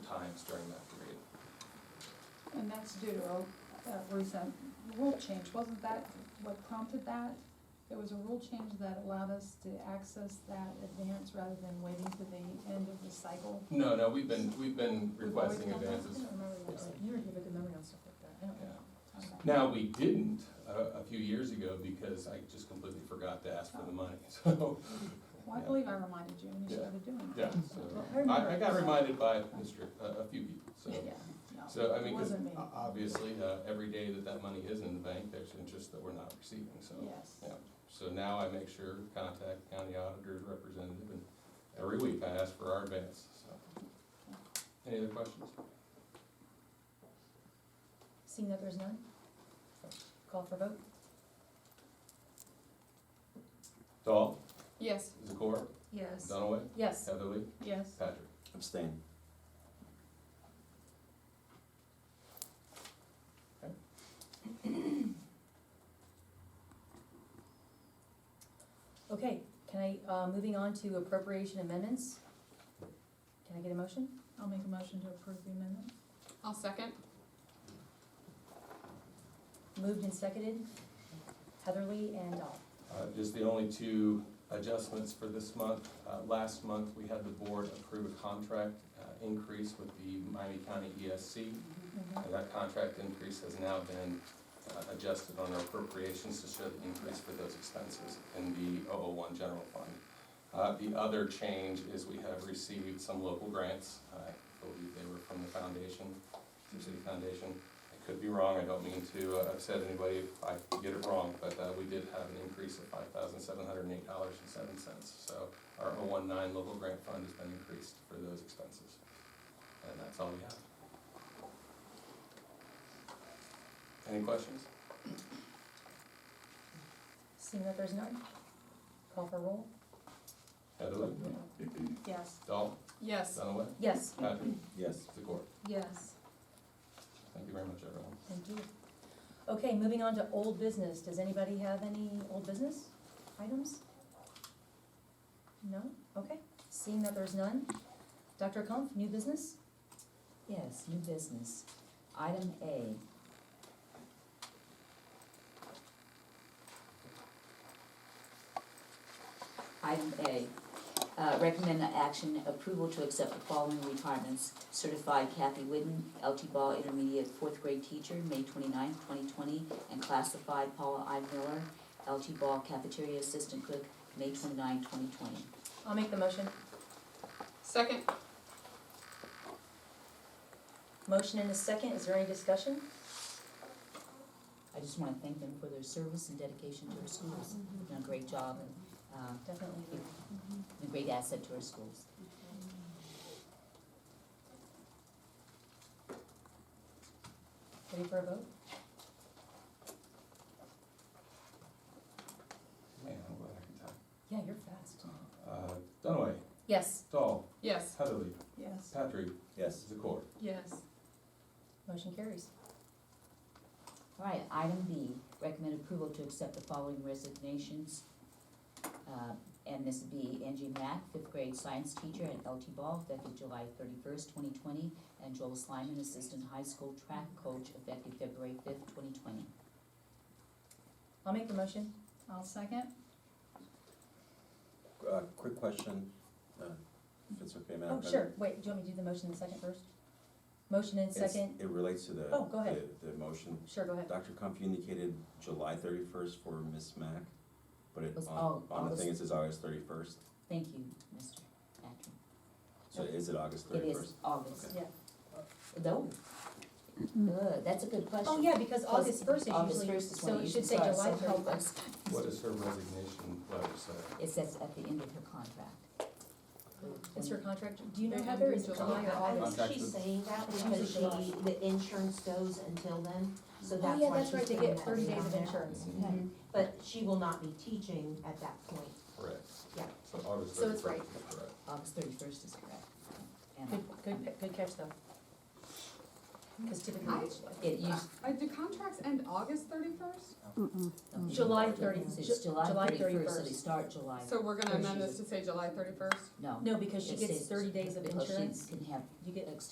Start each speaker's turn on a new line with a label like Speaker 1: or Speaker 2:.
Speaker 1: times during that period.
Speaker 2: And that's due to a, a recent rule change, wasn't that what prompted that? There was a rule change that allowed us to access that advance rather than waiting to the end of the cycle.
Speaker 1: No, no, we've been, we've been
Speaker 2: We've always
Speaker 1: requesting
Speaker 2: done that?
Speaker 1: advances.
Speaker 2: I don't remember that, but you have a good memory on stuff like that, I don't
Speaker 1: Yeah.
Speaker 2: know. Okay.
Speaker 1: Now, we didn't uh, a, a few years ago because I just completely forgot to ask for the money, so,
Speaker 2: Well, I believe I reminded you and you started doing it.
Speaker 1: yeah, so. I, I got reminded by Mr., a, a few people, so.
Speaker 2: Yeah, no.
Speaker 1: So, I mean, 'cause
Speaker 2: Wasn't me.
Speaker 1: o- obviously, uh, every day that that money is in the bank, there's interest that we're not receiving, so.
Speaker 2: Yes.
Speaker 1: yeah. So now I make sure, contact county auditor's representative, and every week I ask for our advance, so. Any other questions?
Speaker 3: Seeing that there's none? Call for vote?
Speaker 1: Dahl,
Speaker 2: Yes,
Speaker 1: Zakor,
Speaker 3: Yes.
Speaker 1: Dunaway,
Speaker 3: Yes.
Speaker 1: Heatherly,
Speaker 2: yes.
Speaker 1: Patrick.
Speaker 4: Abstain.
Speaker 3: Okay, can I, uh, moving on to appropriation amendments? Can I get a motion?
Speaker 2: I'll make a motion to approve the amendment.
Speaker 5: I'll second.
Speaker 3: Moved and seconded, Heatherly and Dahl.
Speaker 1: Uh, Just the only two adjustments for this month. Uh, Last month, we had the board approve a contract uh, increase with the Miami County E ESC.
Speaker 3: Mm-hmm.
Speaker 1: And Uh, that contract increase has now been uh, adjusted on our appropriations to show the increase for those expenses in the oh one general fund. Uh, The other change is we have received some local grants. I believe they were from the foundation, Sioux City Foundation. I could be wrong, I don't mean to uh, upset anybody if I get it wrong, but uh, we did have an increase of five thousand seven hundred and eight dollars and seven cents. So our 019 local grant fund has been increased for those expenses. And that's all we have. Any questions?
Speaker 3: Seeing that there's none? Call for roll?
Speaker 1: Heatherly?
Speaker 2: Yes.
Speaker 1: Dahl?
Speaker 5: Yes.
Speaker 1: Dunaway?
Speaker 3: Yes.
Speaker 1: Patrick?
Speaker 4: Yes.
Speaker 1: Zakor?
Speaker 3: Yes.
Speaker 1: Thank you very much, everyone.
Speaker 3: Thank you. Okay, moving on to old business. Does anybody have any old business items? No? Okay. Seeing that there's none, Dr. Kumpf, new business?
Speaker 6: Yes, new business. Item A. Item A, uh, recommend action approval to accept the following retirements. Certified Kathy Whidden, LT Ball Intermediate Fourth Grade Teacher, May twenty-ninth, twenty, and classified Paula I. Miller, LT Ball Cafeteria Assistant Cook, May 29, 2020.
Speaker 3: I'll make the motion.
Speaker 5: Second.
Speaker 3: Motion and a second. Is there any discussion?
Speaker 6: I just wanna thank them for their service and dedication to our schools. They've Done a great job and, uh,
Speaker 3: Definitely.
Speaker 6: a great asset to our schools.
Speaker 3: Ready for a vote?
Speaker 1: Man, I'm glad I can talk.
Speaker 3: Yeah, you're fast.
Speaker 1: Uh, Dunaway,
Speaker 3: Yes.
Speaker 1: Dahl,
Speaker 5: Yes.
Speaker 1: Heatherly,
Speaker 2: Yes.
Speaker 1: Patrick,
Speaker 4: Yes.
Speaker 1: Zakor.
Speaker 5: Yes.
Speaker 3: Motion carries.
Speaker 6: All right, item B, recommend approval to accept the following resignations. Uh, And this would be Angie Mack, fifth grade science teacher at LT Ball, effective July thirty-first, twenty twenty, and Joel Slyman, assistant high school track coach, effective February fifth, twenty twenty.
Speaker 3: I'll make the motion.
Speaker 2: I'll second.
Speaker 4: Uh, quick question, uh, if it's okay,
Speaker 6: Uh,
Speaker 4: Madam
Speaker 3: Oh, sure.
Speaker 4: President?
Speaker 3: Wait, do you want me to do the motion and second first? Motion and
Speaker 4: It's-
Speaker 3: second.
Speaker 4: It relates to the.
Speaker 3: Oh, go ahead.
Speaker 4: The, the motion.
Speaker 3: Sure, go ahead.
Speaker 4: Dr. Comfy indicated July thirty-first for Miss Mack, but it,
Speaker 6: Was-
Speaker 4: on,
Speaker 6: oh,
Speaker 4: on the
Speaker 6: August.
Speaker 4: thing, it says August thirty-first.
Speaker 6: Thank you, Mr. Patrick.
Speaker 4: So is it August
Speaker 6: It
Speaker 4: thirty-first?
Speaker 6: is August.
Speaker 3: Yeah.
Speaker 6: No. Good, that's a good question.
Speaker 3: Oh, yeah, because August first is
Speaker 6: August
Speaker 3: usually,
Speaker 6: 1st is when
Speaker 3: so
Speaker 6: it
Speaker 3: it should
Speaker 6: usually
Speaker 3: say
Speaker 6: starts,
Speaker 3: July
Speaker 6: so help
Speaker 3: thirty-first.
Speaker 6: us.
Speaker 1: What does her resignation letter say?
Speaker 6: It says at the end of her contract.
Speaker 3: It's her contract, do you know
Speaker 5: They have
Speaker 3: Heather,
Speaker 5: to
Speaker 3: is
Speaker 5: do
Speaker 3: it
Speaker 5: July.
Speaker 3: July or August?
Speaker 1: Contract
Speaker 7: She's
Speaker 1: with-
Speaker 7: saying that
Speaker 3: It's
Speaker 7: because
Speaker 3: usually July.
Speaker 7: the, the insurance goes until then, so
Speaker 3: Oh,
Speaker 7: that's
Speaker 3: yeah,
Speaker 7: why
Speaker 3: that's
Speaker 7: she's
Speaker 3: right, they
Speaker 7: putting
Speaker 3: get
Speaker 7: that
Speaker 3: thirty
Speaker 7: down
Speaker 3: days of
Speaker 7: there.
Speaker 3: insurance.
Speaker 6: Mm-hmm.
Speaker 1: Mhm.
Speaker 7: Mhm. But she will not be teaching at that point.
Speaker 1: Correct.
Speaker 7: Yeah.
Speaker 1: So August
Speaker 3: So it's
Speaker 1: 31st
Speaker 3: right.
Speaker 1: is correct.
Speaker 6: August thirty-first is correct.
Speaker 3: Good,
Speaker 6: And
Speaker 3: good, pa- good catch though. Because typically
Speaker 5: I-
Speaker 3: it's July.
Speaker 6: it used,
Speaker 5: Uh, do contracts end August thirty-first?
Speaker 3: July 30,
Speaker 6: It's
Speaker 3: Ju-
Speaker 6: July
Speaker 3: July
Speaker 6: thirty-first, so
Speaker 3: 31st.
Speaker 6: they start July,
Speaker 5: So we're gonna
Speaker 6: Or
Speaker 5: amend
Speaker 6: she's
Speaker 5: this to say July thirty-first?
Speaker 6: no.
Speaker 3: No, because she
Speaker 6: it
Speaker 3: gets
Speaker 6: says-
Speaker 3: thirty days of
Speaker 6: because she
Speaker 3: insurance,
Speaker 6: Can have
Speaker 3: you get
Speaker 6: extended